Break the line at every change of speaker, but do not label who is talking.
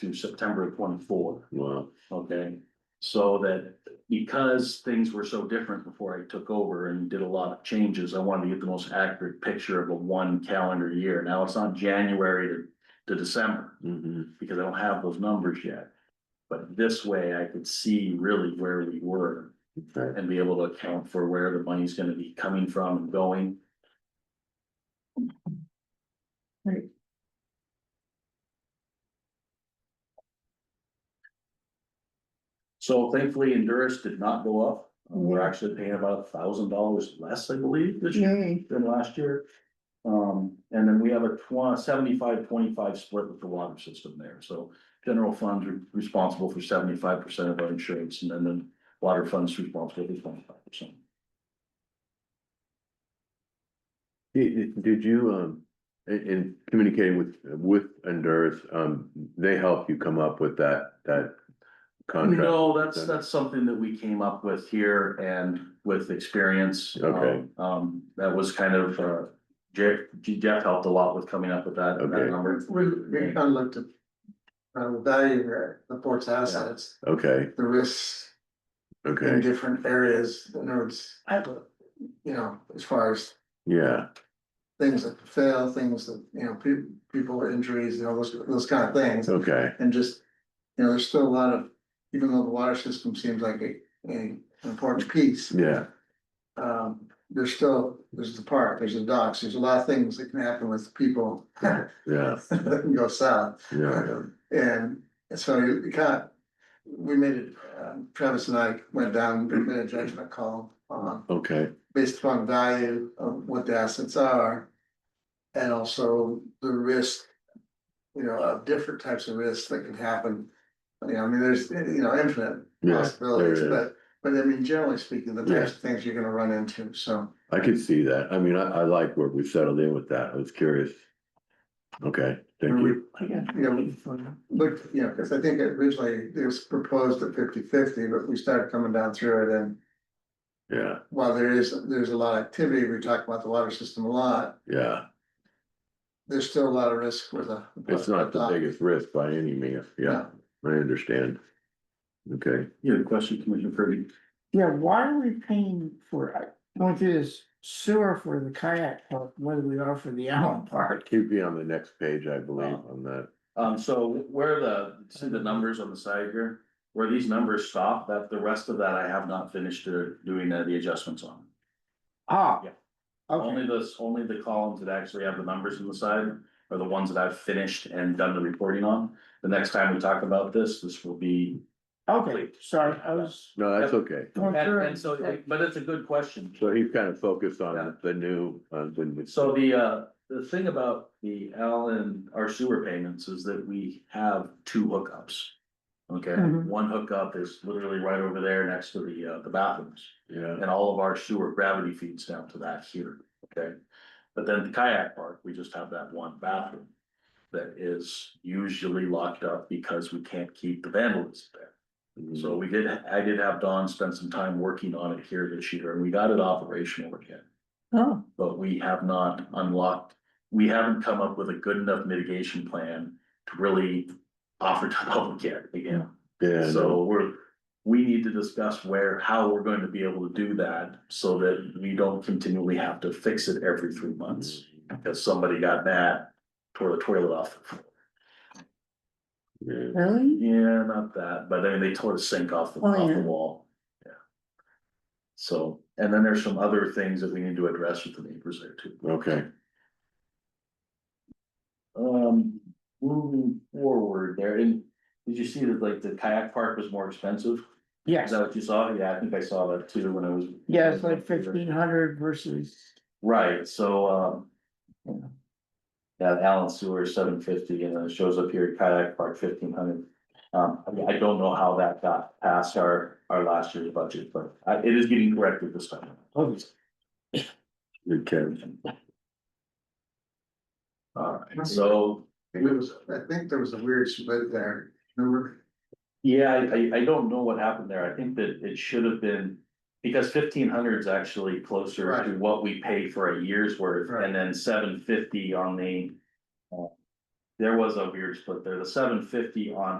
to September twenty-four.
Wow,
Okay, so that because things were so different before I took over and did a lot of changes, I wanted to get the most accurate picture of a one calendar year. Now it's not January to, to December
hmm
because I don't have those numbers yet. But this way I could see really where we were
okay,
and be able to account for where the money's gonna be coming from and going. So thankfully, Endurus did not go up. Um, We're actually paying about a thousand dollars less, I believe, this year
Yay.
than last year. Um, and then we have a twen- 75-25 split with the water system there, so general funds are responsible for seventy-five percent of our insurance, and then the water funds responsible for twenty-five percent.
did, did you, um, in, in communicating with, with Honduras, um, they help you come up with that, that contract?
No, that's,
then?
that's something that we came up with here and with experience.
Okay.
Um, Um, that was kind of, uh, Jeff, Jeff helped a lot with coming up with that, that
Okay.
number.
We, we kind of looked at. Uh, the value of the port's assets,
Okay,
the risks in
okay,
different areas, in other words. You know, as far as
yeah,
things that fail, things that, you know, people, people with injuries, you know, those, those kind of things.
okay,
And just, you know, there's still a lot of, even though the water system seems like a, a an important piece.
yeah,
Um, there's still, there's the park, there's the docks, there's a lot of things that can happen with people that
yeah,
can go south.
yeah,
And so you kind of, we made it, uh, Travis and I went down, we made a judgment call on,
okay,
based upon value of what the assets are. And also the risk, you know, of different types of risks that can happen. You know, I mean, there's, you know, infinite
yeah,
possibilities,
there
but, but I mean, generally speaking, the types of things you're gonna run into, so.
I could see that, I mean, I, I like where we settled in with that, I was curious. Okay, thank you,
You know, look, you know, because I think originally it was proposed at 50-50, but we started coming down through it and
yeah,
while there is, there's a lot of activity, we talk about the water system a lot,
yeah,
there's still a lot of risk with a.
it's not
Uh,
the biggest risk by any means, yeah, I understand. Okay.
You had a question, Commissioner Kirby?
Yeah, why are we paying for, uh, I want this sewer for the kayak park, whether we are for the Allen Park.
Keep you on the next page, I believe, on that.
Um, so where the, see the numbers on the side here, where these numbers stop, that the rest of that I have not finished uh, doing uh, the adjustments on.
Ah.
Yeah. Only
Okay,
those, only the columns that actually have the numbers on the side are the ones that I've finished and done the reporting on. The next time we talk about this, this will be.
okay, sorry, I was.
No, that's okay.
going
And,
through it.
and so, but it's a good question.
So he's kind of focused
Yeah.
on the new, uh, the new.
So the, uh, the thing about the Allen, our sewer payments is that we have two hookups. Okay,
Mhm.
one hookup is literally right over there next to the, uh, the bathrooms.
Yeah,
And all of our sewer gravity feeds down to that here, okay? But then the kayak park, we just have that one bathroom. That is usually locked up because we can't keep the vandalism there. So we did, I did have Don spend some time working on it here this year and we got it operational again.
Oh,
But we have not unlocked, we haven't come up with a good enough mitigation plan to really offer to the public yet again.
yeah, no,
So we're, we need to discuss where, how we're going to be able to do that so that we don't continually have to fix it every three months. Because somebody got mad, tore the toilet off. the floor.
yeah.
really?
Yeah, not that, but I mean, they tore the sink off the,
Oh,
off the
yeah.
wall. Yeah. So, and then there's some other things that we need to address with the neighbors there too.
Okay,
Um, moving forward there, and did you see that like the kayak park was more expensive? Is
Yes,
that what you saw? Yeah, I think I saw that too when I was.
yeah, it's like fifteen hundred versus,
Right, so,
Yeah.
um. Yeah, Allen Sewer seven fifty, and then it shows up here, kayak park fifteen hundred. Um, I mean, I don't know how that got past our, our last year's budget, but I, it is getting corrected this time.
oh,
good catch.
Alright, so,
It was, I think there was a weird split there, remember?
yeah, I, I, I don't know what happened there, I think that it should have been. Because fifteen hundred is actually closer to
Right.
what we pay for a year's worth,
Right.
and then seven fifty on the. uh, there was a weird split there, the seven fifty on